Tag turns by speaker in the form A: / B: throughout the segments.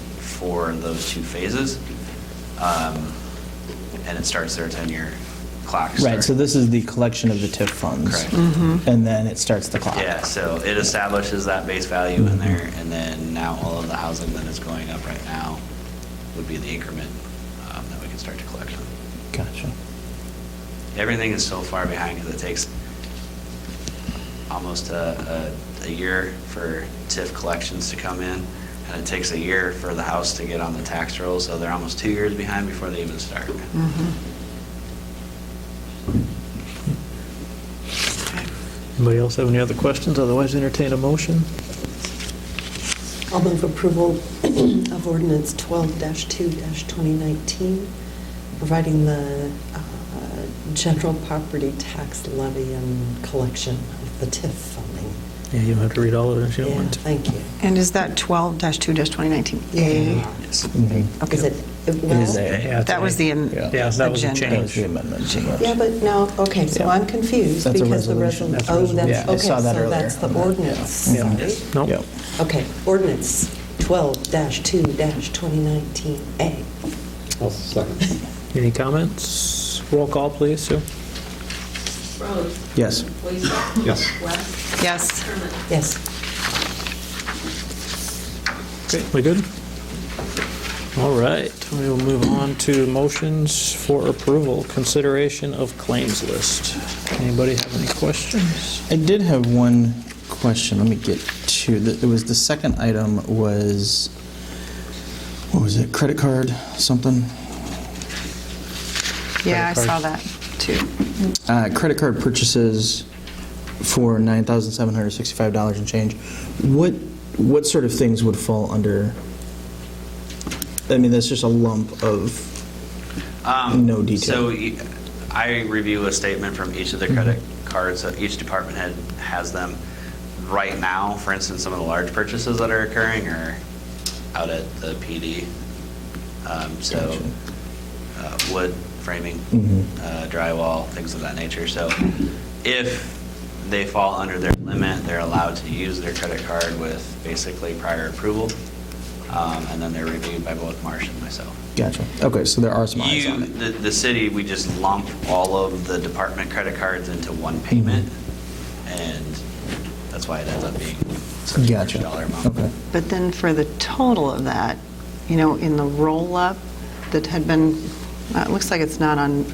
A: for those two phases. Um, And it starts their 10-year clock.
B: Right, so
A: start.
B: this is the collection of the TIF funds.
A: Correct.
C: Mm-hmm.
B: And then it starts the clock.
A: Yeah, so it establishes that base value in there, and then now all of the housing that is going up right now would be the increment um, that we can start to collect on.
B: Gotcha.
A: Everything is so far behind because it takes almost a, a, a year for TIF collections to come in, and it takes a year for the house to get on the tax roll, so they're almost two years behind before they even start.
D: Anybody else have any other questions? Otherwise, entertain a motion.
C: I'll move approval of ordinance 12-2-2019, providing the uh, general property tax levy and collection of the TIF funding.
D: Yeah, you don't have to read all of it if you don't
C: Yeah,
D: want to.
C: thank you.
E: And is that 12-2-2019A?
A: Yes.
B: Mhm.
E: Okay.
C: Is it, it-
B: It is
C: well,
B: there.
D: Yeah,
E: That was the
B: Yeah.
E: agenda.
D: Yeah, that was a
B: That was the
D: change.
B: amendment.
C: yeah, but no, okay, so
B: Yeah.
C: I'm confused
B: That's a
C: because the
B: resolution.
C: resolution,
D: That's a
C: oh,
D: resolution.
C: that's,
B: Yeah, I
C: okay,
B: saw
C: so
B: that earlier
C: that's the
B: on that,
C: ordinance,
D: Yeah.
C: sorry.
D: Nope.
B: Yep.
C: Okay, ordinance 12-2-2019A.
F: I'll second.
D: Any comments? Roll call, please, Sue.
G: Rose.
B: Yes.
G: Boyce.
F: Yes.
G: West.
E: Yes.
G: Herman.
C: Yes.
D: Great, we good? All right, we will move on to motions for approval, consideration of claims list. Anybody have any questions?
B: I did have one question. Let me get to, the- it was the second item was, what was it, credit card, something?
E: Yeah, I
D: Credit
E: saw
D: card.
E: that, too.
B: Uh, Credit card purchases for $9,765 and change. What, what sort of things would fall under? I mean, that's just a lump of,
A: Um,
B: No detail. Mm-hmm.
A: So e- I review a statement from each of the credit cards, so each department head has them. Right now, for instance, some of the large purchases that are occurring are out at the PD. Um, So
B: Gotcha.
A: uh, wood framing,
B: Mhm.
A: uh, drywall, things of that nature. So if they fall under their limit, they're allowed to use their credit card with basically prior approval. Um, And then they're reviewed by both Marsh and myself.
B: gotcha. Okay, so there are some eyes
A: You,
B: on it.
A: the, the city, we just lump all of the department credit cards into one
B: Mm-hmm.
A: payment, and that's why it ends up being such a large
B: Gotcha.
A: dollar amount.
B: Okay.
E: But then for the total of that, you know, in the roll-up that had been, uh, it looks like it's not on,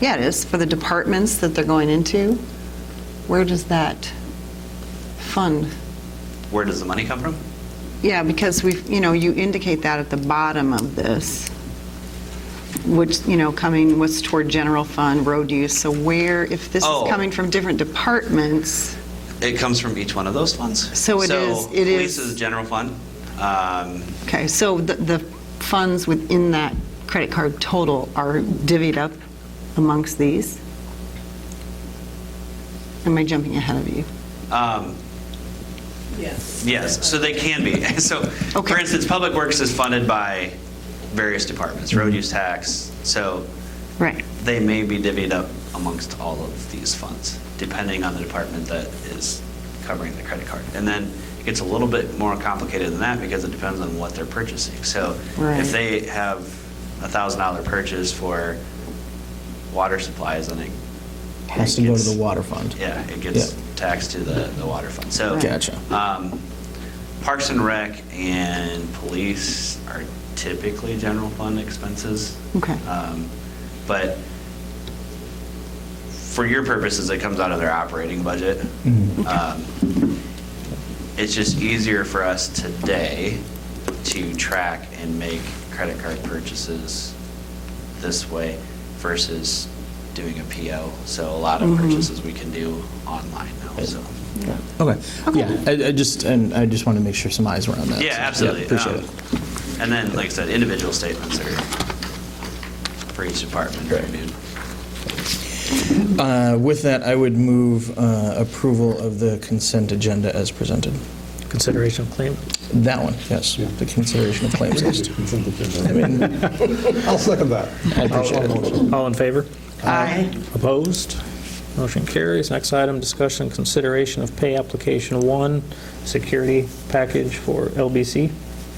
E: yeah, it is, for the departments that they're going into, where does that fund?
A: Where does the money come from?
E: Yeah, because we've, you know, you indicate that at the bottom of this, which, you know, coming, what's toward general fund, road use, so where, if this
A: Oh.
E: is coming from different departments,
A: It comes from each one of those funds.
E: So it is- it is-
A: Police is general fund, um,
E: okay, so the, the funds within that credit card total are divvied up amongst these? Am I jumping ahead of you?
A: um,
G: Yes.
A: yes, so they can be. So, for
E: Okay.
A: instance, Public Works is funded by various departments, road use tax, so
E: Right.
A: they may be divvied up amongst all of these funds, depending on the department that is covering the credit card. And then it gets a little bit more complicated than that because it depends on what they're purchasing. So
E: Right.
A: if they have a thousand dollar purchase for water supplies, then it.
B: Has
A: it
B: to go to
A: gets-
B: the water fund.
A: Yeah, it gets
B: Yeah.
A: taxed to the, the water fund. So.
B: Gotcha.
A: um, Parks and Rec and police are typically general fund expenses.
E: Okay.
A: Um, But for your purposes, it comes out of their operating budget.
B: Mhm.
A: Um, It's just easier for us today to track and make credit card purchases this way versus doing a PO. So a lot of purchases we can do online now, so.
B: Okay, yeah, I, I just, and I just wanted to make sure some eyes were on that.
A: Yeah,
B: so,
A: absolutely.
B: Appreciate
A: Um,
B: it.
A: And then, like I said, individual statements are for each department
B: Right.
A: reviewed.
B: Uh, With that, I would move uh, approval of the consent agenda as presented.
D: Consideration of claim?
B: That one, yes, the consideration of claims list. I mean,
F: I'll second that.
B: I appreciate it.
D: All in favor?
E: Aye.
D: Opposed? Motion carries. Next item, discussion, consideration of pay application one, security package for LBC.